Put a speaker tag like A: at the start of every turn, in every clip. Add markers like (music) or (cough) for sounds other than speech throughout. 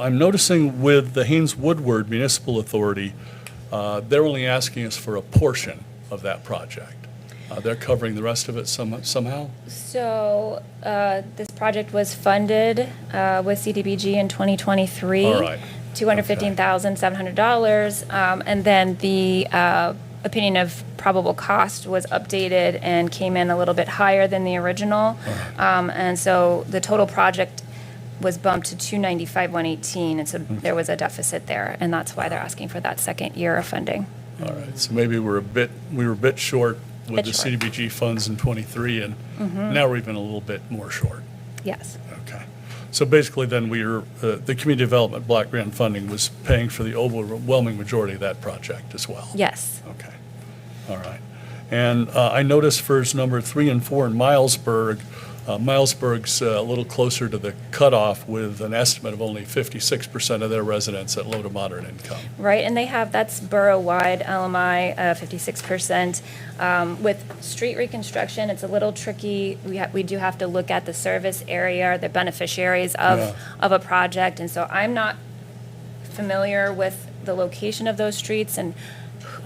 A: I'm noticing with the Haynes Woodward Municipal Authority, uh, they're only asking us for a portion of that project. Uh, They're covering the rest of it some- somehow?
B: So uh, this project was funded uh, with CDBG in 2023.
A: All right.
B: $215,700. um, And then the uh, opinion of probable cost was updated and came in a little bit higher than the original.
A: Uh-huh.
B: Um, And so the total project was bumped to 295,118. And so
A: Mm-hmm.
B: there was a deficit there. And that's why they're asking for that second year of funding.
A: All right, so maybe we're a bit, we were a bit short with
B: Bit
A: the
B: short. Mm-hmm.
A: CDBG funds in '23, and now we're even a little bit more short.
B: Yes.
A: Okay. So basically, then we are, uh, the community development block grant funding was paying for the overwhelming majority of that project as well?
B: Yes.
A: Okay, all right. And uh, I noticed for number three and four in Milesburg, uh, Milesburg's uh, a little closer to the cutoff with an estimate of only 56% of their residents at low to moderate income.
B: Right, and they have, that's borough-wide LMI, uh, 56%. Um, With street reconstruction, it's a little tricky. We ha we do have to look at the service area, the beneficiaries
A: Yeah.
B: of, of a project. And so I'm not familiar with the location of those streets and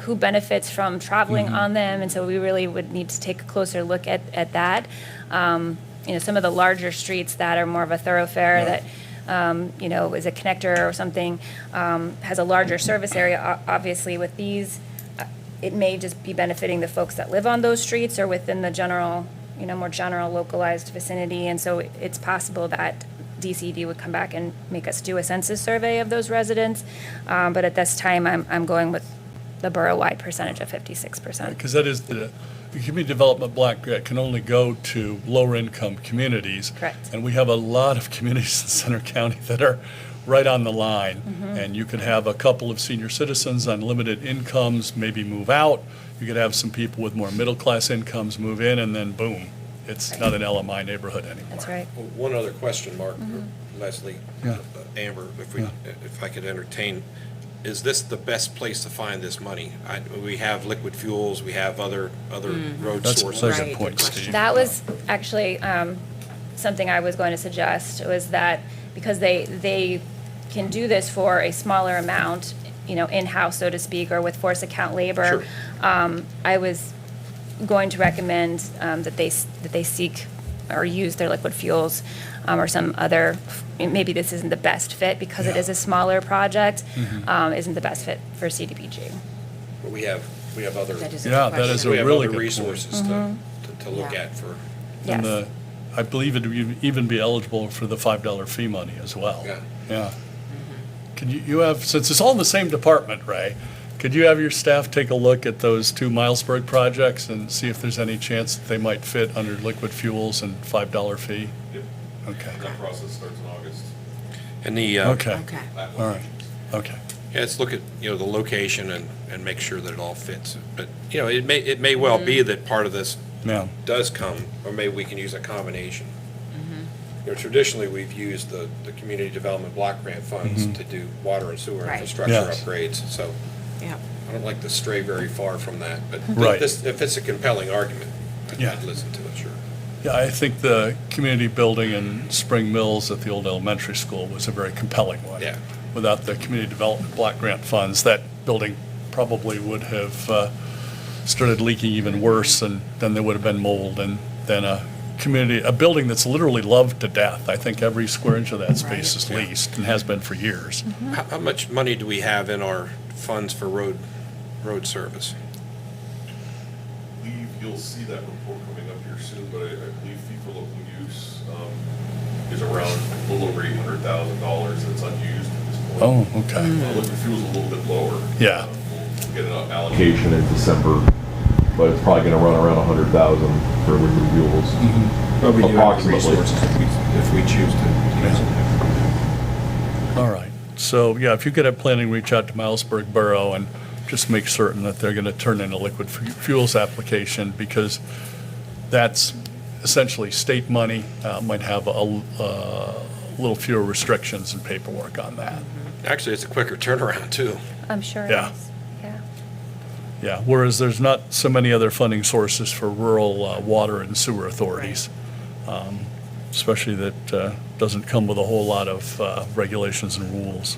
B: who benefits from traveling on them. And so we really would need to take a closer look at, at that. Um, You know, some of the larger streets that are more of a thoroughfare
A: Yeah.
B: that, um, you know, is a connector or something, um, has a larger service area, o- obviously with these, uh, it may just be benefiting the folks that live on those streets or within the general, you know, more general localized vicinity. And so it's possible that DCD would come back and make us do a census survey of those residents. Um, But at this time, I'm, I'm going with the borough-wide percentage of 56%.
A: Because that is the, the community development block grant can only go to lower income communities.
B: Correct.
A: And we have a lot of (laughs) communities in Center County that are right on the line.
B: Mm-hmm.
A: And you could have a couple of senior citizens on limited incomes maybe move out. You could have some people with more middle class incomes move in and then boom, it's not an LMI neighborhood anymore.
B: That's right.
C: Well, One other question, Mark,
D: Mm-hmm.
C: Leslie,
A: Yeah.
C: uh, Amber, if we,
A: Yeah.
C: if I could entertain, is this the best place to find this money? I- We have liquid fuels, we have other, other road
A: That's a
C: sources.
A: pleasure
D: Mm-hmm. Right,
A: point,
D: good question.
A: Steve.
B: That was actually um, something I was going to suggest, was that because they, they can do this for a smaller amount, you know, in-house, so to speak, or with force account
C: Sure.
B: labor. um, I was going to recommend um, that they, s- that they seek or use their liquid fuels um, or some other, maybe this isn't the best fit because it
A: Yeah. Mm-hmm.
B: is a smaller project, um, isn't the best fit for CDBG.
C: But we have, we have other,
D: That is a
A: Yeah,
D: good
A: that is a
C: we
D: question.
C: have
A: really
C: other
A: good point.
C: resources to, to- to look
D: Yeah.
C: at for,
B: Yes.
A: And the, I believe it would e-, even be eligible for the $5 fee money as well.
C: Yeah.
A: Yeah. Can you, you have, since it's all in the same department, Ray, could you have your staff take a look at those two Milesburg projects and see if there's any chance that they might fit under liquid fuels and $5 fee?
E: Yep.
A: Okay,
E: That process starts in August.
C: and the, uh,
A: okay,
D: Okay.
E: That one.
A: all right, okay.
C: yeah, let's look at, you know, the location and, and make sure that it all fits. But, you know, it may, it may well be
D: Mm-hmm.
C: that part of this
A: Now,
C: does come, or maybe we can use a combination. You know, traditionally, we've used the, the community development block grant funds to do water and sewer
D: Right.
C: infrastructure
A: Mm-hmm. Yes.
C: upgrades, so
D: Yeah.
C: I don't like to stray very far from that, but th-
A: Right.
C: this, if it's a compelling argument, I'd-
A: Yeah.
C: I'd listen to it, sure.
A: yeah, I think the community building in Spring Mills at the old elementary school was a very compelling one.
C: Yeah.
A: without the community development block grant funds, that building probably would have uh, started leaking even worse, and then there would have been mold, and then a community, a building that's literally loved to death. I think every square inch of that space is
C: Right. Mm-hmm.
A: leased and has been for years.
C: How, how much money do we have in our funds for road, road service?
E: believe you'll see that report coming up here soon, but I, I believe fee for local use, um, is around a little over eight hundred thousand dollars that's unused at this point.
A: Oh, okay.
E: Uh, Liquid fuel's a little bit lower.
A: Yeah.
E: Uh, We'll we'll get an allocation in December, but it's probably gonna run around a hundred thousand for liquid fuels.
A: Mm-hmm.
C: But
E: we do have the Approximately. resources
C: if we choose to
A: use
C: use
A: it.
C: it.
A: All right. So, yeah, if you could have planning, reach out to Milesburg Borough and just make certain that they're going to turn in a liquid fu- fuels application because that's essentially state money, uh, might have a uh, little fewer restrictions and paperwork on that.
C: Actually, it's a quicker turnaround, too.
B: I'm sure it
A: Yeah.
B: is. Yeah.
A: Yeah, whereas there's not so many other funding sources for rural uh, water and sewer authorities. Um, especially that uh, doesn't come with a whole lot of uh, regulations and rules.